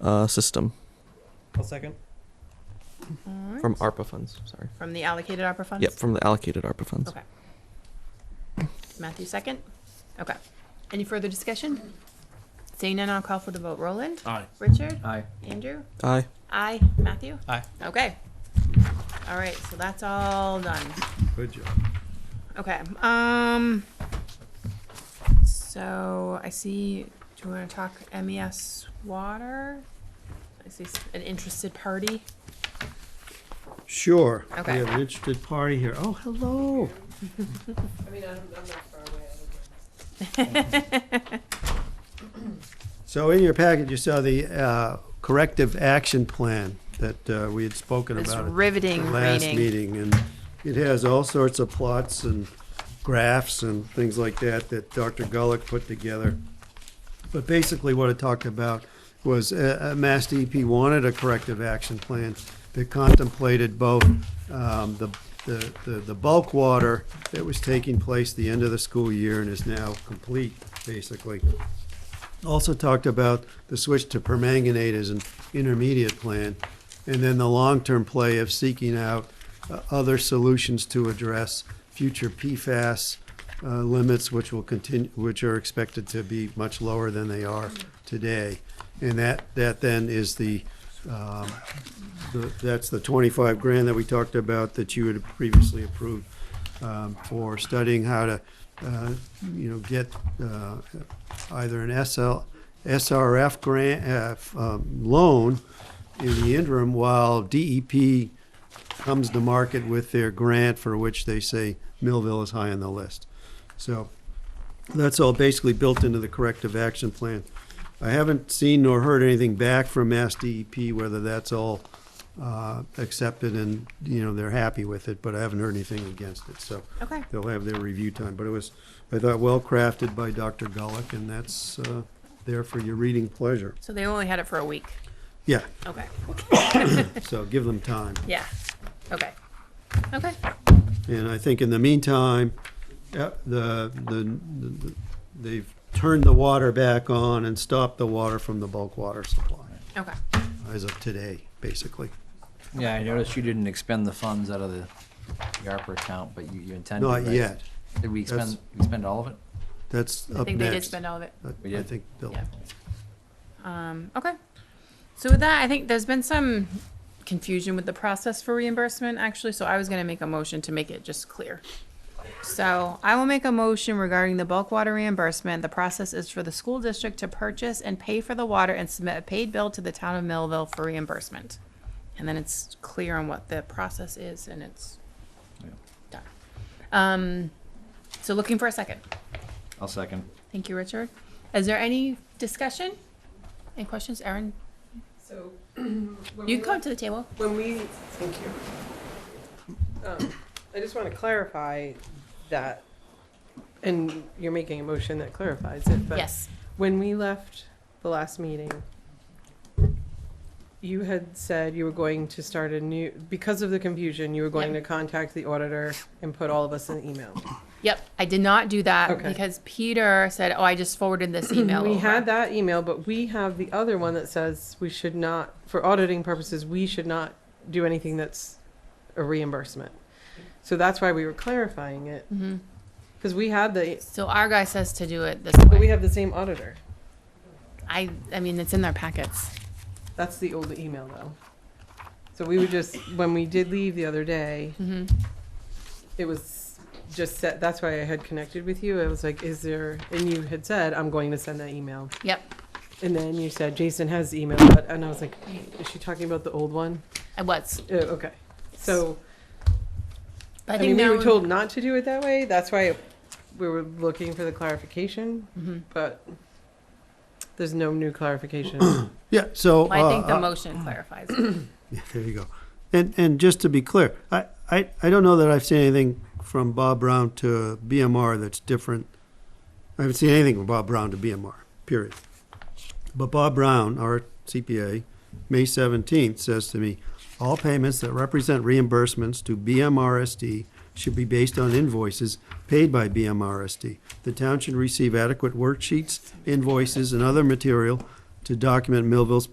uh, system I'll second. Alright. from ARPA funds. Sorry. From the allocated opera funds? Yep, from the allocated ARPA funds. Okay. Matthew second? Okay. Any further discussion? Seeing none, I'll call for the vote. Roland? Aye. Richard? Aye. Andrew? Aye. Aye. Matthew? Aye. Okay. All right, so that's all done. Good job. Okay, um, so I see, do you wanna talk MES water? I see s- an interested party. Sure. Okay. We have an interested party here. Oh, hello. So in your packet, you saw the uh, corrective action plan that uh, we had spoken It's about. at riveting the Last reading. meeting, and it has all sorts of plots and graphs and things like that that Dr. Gulick put together. But basically, what it talked about was uh, uh, Mass DEP wanted a corrective action plan that contemplated both um, the, the, the- the bulk water that was taking place the end of the school year and is now complete, basically. Also talked about the switch to permanganate as an intermediate plan, and then the long-term play of seeking out uh, other solutions to address future PFAS uh, limits, which will continue, which are expected to be much lower than they are today. And that, that then is the, um, the- that's the twenty-five grand that we talked about that you had previously approved um, for studying how to, uh, you know, get uh, either an SL, SRF grant, uh, f- um, loan in the interim while E DEP comes to market with their grant for which they say Millville is high on the list. So that's all basically built into the corrective action plan. I haven't seen nor heard anything back from Mass DEP, whether that's all uh, accepted and, you know, they're happy with it, but I haven't heard anything against it, so. Okay. They'll have their review time, but it was, I thought, well-crafted by Dr. Gulick, and that's uh, there for your reading pleasure. So they only had it for a week. Yeah, Okay, so give them time. yeah, okay, okay. And I think in the meantime, uh, the, the, the- they've turned the water back on and stopped the water from the bulk water supply Okay. as of today, basically. Yeah, I noticed you didn't expend the funds out of the the ARPA account, but you, you intended, Not right? yet. Did we That's- expend, we spend all of it? That's I up think they did next. spend all of it. I- We I did? think Bill. Yeah. Um, okay. So with that, I think there's been some confusion with the process for reimbursement, actually, so I was gonna make a motion to make it just clear. So I will make a motion regarding the bulk water reimbursement. The process is for the school district to purchase and pay for the water and submit a paid bill to the town of Millville for reimbursement. And then it's clear on what the process is and it's Yeah. done. Um, so looking for a second. I'll second. Thank you, Richard. Is there any discussion? Any questions, Erin? So, when You we, can come to the table. when we, thank you. Um, I just want to clarify that, and you're making a motion that clarifies it, but Yes. when we left the last meeting, you had said you were going to start a new, because of the confusion, you were going to Yep. contact the auditor and put all of us an email. Yep, I did not do that Okay. because Peter said, oh, I just forwarded this email We had over. that email, but we have the other one that says we should not, for auditing purposes, we should not do anything that's a reimbursement. So that's why we were clarifying it, Mhm. because we had the, So our guy says to do it this but we way. have the same auditor. I, I mean, it's in their packets. That's the old email though. So we were just, when we did leave the other day, Mhm. it was just set, that's why I had connected with you. I was like, is there, and you had said, I'm going to send that email. Yep, And then you said, Jason has the email, but, and I was like, wait, is she talking about the old one? it was. Uh, okay. So, But I, I mean, think we now, were told not to do it that way. That's why we were looking for the clarification, Mhm. but there's no new clarification. Yeah, so. I think uh, the uh, motion clarifies. it. Yeah, there you go. And, and just to be clear, I, I, I don't know that I've seen anything from Bob Brown to BMR that's different. I haven't seen anything from Bob Brown to BMR, period. But Bob Brown, our CPA, May seventeenth says to me, all payments that represent reimbursements to BMRSD should be based on invoices paid by BMRSD. The town should receive adequate worksheets, invoices, and other material to document Millville's